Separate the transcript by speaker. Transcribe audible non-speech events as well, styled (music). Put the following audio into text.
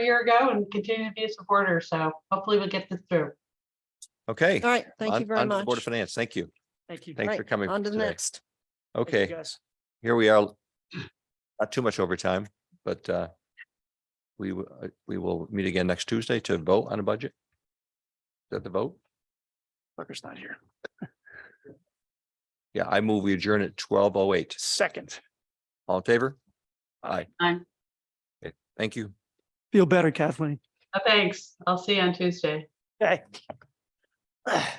Speaker 1: a year ago and continue to be a supporter. So hopefully we'll get this through.
Speaker 2: Okay.
Speaker 3: All right, thank
Speaker 2: on-
Speaker 3: you very
Speaker 2: on to the
Speaker 3: much.
Speaker 2: Board of Finance, thank you.
Speaker 4: Thank you.
Speaker 2: Thanks for
Speaker 3: Right,
Speaker 2: coming
Speaker 3: On to the
Speaker 2: today.
Speaker 3: next.
Speaker 4: Thank you,
Speaker 2: Okay,
Speaker 4: guys.
Speaker 2: here we are. Not too much overtime, but uh we, w- uh, we will meet again next Tuesday to vote on a budget. Is that the vote?
Speaker 4: Tucker's not here.
Speaker 2: Yeah, I move we adjourn at twelve oh eight.
Speaker 4: Second.
Speaker 2: All in favor? Aye.
Speaker 1: Aye.
Speaker 2: Okay, Thank you.
Speaker 4: Feel better, Kathleen.
Speaker 1: Uh, Thanks. I'll see you on Tuesday.
Speaker 4: (sighs) Okay.